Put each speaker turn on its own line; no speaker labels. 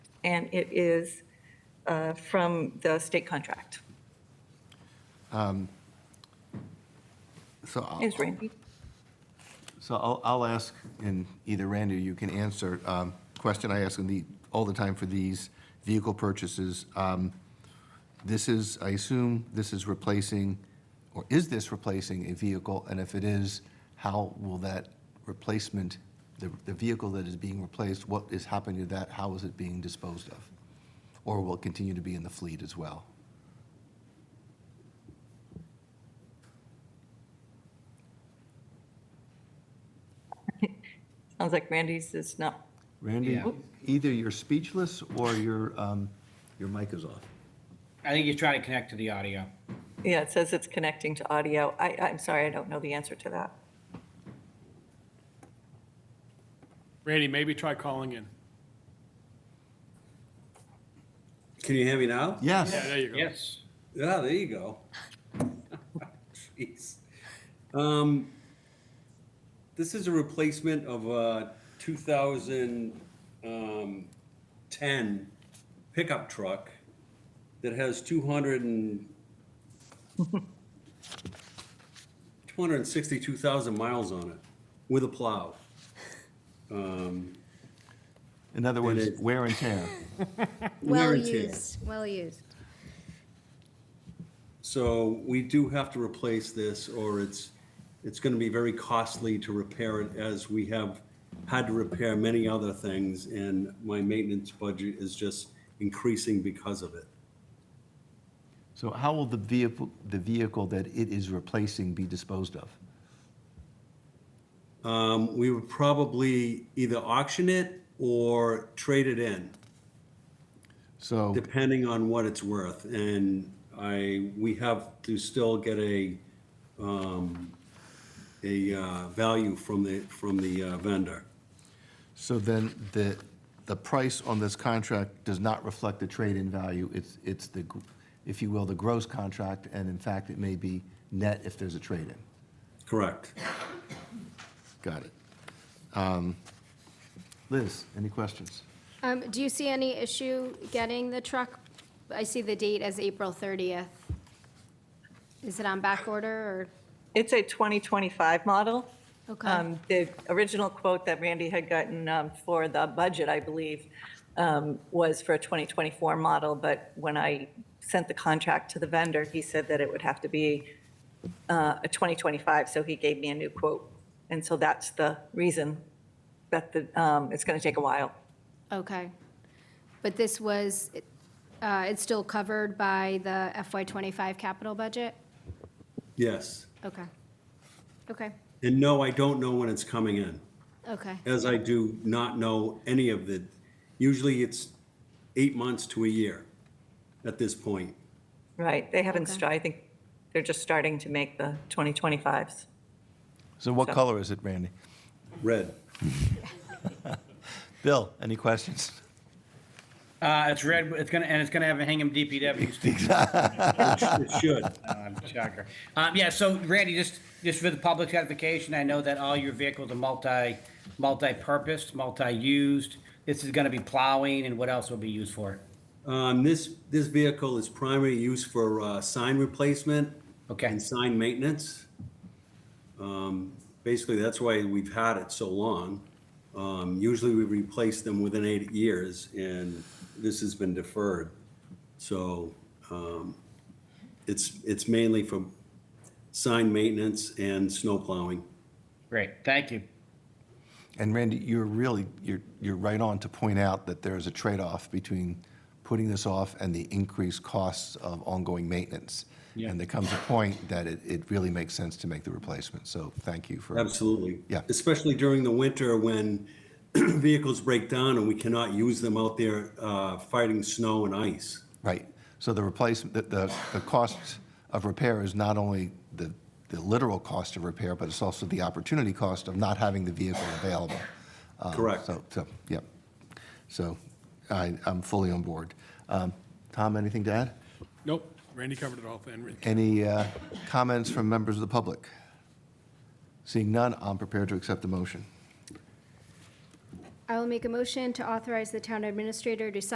and it is uh, from the state contract.
So I'll,
Is Randy?
so I'll, I'll ask, and either Randy or you can answer, um, question I ask in the, all the time for these vehicle purchases. Um, This is, I assume this is replacing, or is this replacing a vehicle? And if it is, how will that replacement, the, the vehicle that is being replaced, what is happening to that? How is it being disposed of? Or will it continue to be in the fleet as well?
Sounds like Randy's is not,
Randy, either you're speechless or your, um, your mic is off.
I think he's trying to connect to the audio.
yeah, it says it's connecting to audio. I, I'm sorry, I don't know the answer to that.
Randy, maybe try calling in.
Can you hear me now?
Yes.
Yeah, there you go.
Yes.
Yeah, there you go. Jeez. Um, this is a replacement of a 2010 pickup truck that has 200 and 262,000 miles on it with a plow. Um,
In other
It
words,
is.
wear and tear.
wear
Well
and tear.
used, well used.
So we do have to replace this, or it's, it's gonna be very costly to repair it, as we have had to repair many other things, and my maintenance budget is just increasing because of it.
So how will the vehicle, the vehicle that it is replacing be disposed of?
Um, we would probably either auction it or trade it in,
So,
depending on what it's worth, and I, we have to still get a, um, a, uh, value from the, from the uh, vendor.
so then the, the price on this contract does not reflect the trade-in value. It's, it's the, gr- if you will, the gross contract, and in fact, it may be net if there's a trade-in.
Correct.
Got it. Um, Liz, any questions?
Um, Do you see any issue getting the truck? I see the date as April 30th. Is it on back order
It's a 2025 model.
or, okay,
Um, The original quote that Randy had gotten um, for the budget, I believe, um, was for a 2024 model, but when I sent the contract to the vendor, he said that it would have to be uh, a 2025, so he gave me a new quote. And so that's the reason that the, um, it's going to take a while.
okay. But this was, uh, it's still covered by the FY25 capital budget?
Yes.
Okay, okay,
And no, I don't know when it's coming in,
okay,
as I do not know any of the, usually it's eight months to a year at this point.
Right, they haven't,
Okay.
sta- I think, they're just starting to make the 2025s.
So what color is it, Randy?
Red.
Bill, any questions?
Uh, it's red, it's gonna, and it's gonna have a Hingham DPW
It should.
Um, Shocker. Um, yeah, so Randy, just, just for the public certification, I know that all your vehicles are multi, multi-purpose, multi-used. This is gonna be plowing and what else will be used for?
Um, this, this vehicle is primary use for, uh, sign replacement
Okay,
and sign maintenance. Um, basically, that's why we've had it so long. Um, usually we replace them within eight years and this has been deferred. So, um, it's, it's mainly for sign maintenance and snow plowing.
great, thank you.
And Randy, you're really, you're, you're right on to point out that there is a trade-off between putting this off and the increased costs of ongoing maintenance. And there comes a point that it, it really makes sense to make the replacement. So thank you for.
Absolutely.
Yeah.
Especially during the winter when vehicles break down and we cannot use them out there, uh, fighting snow and ice.
Right. So the replacement, the, the, the cost of repair is not only the, the literal cost of repair, but it's also the opportunity cost of not having the vehicle available. Um,
Correct.
So, so, yep. So I, I'm fully on board. Um, Tom, anything to add?
Nope, Randy covered it all. Then
Any uh, comments from members of the public? Seeing none, I'm prepared to accept the motion.
I will make a motion to authorize the town administrator to sign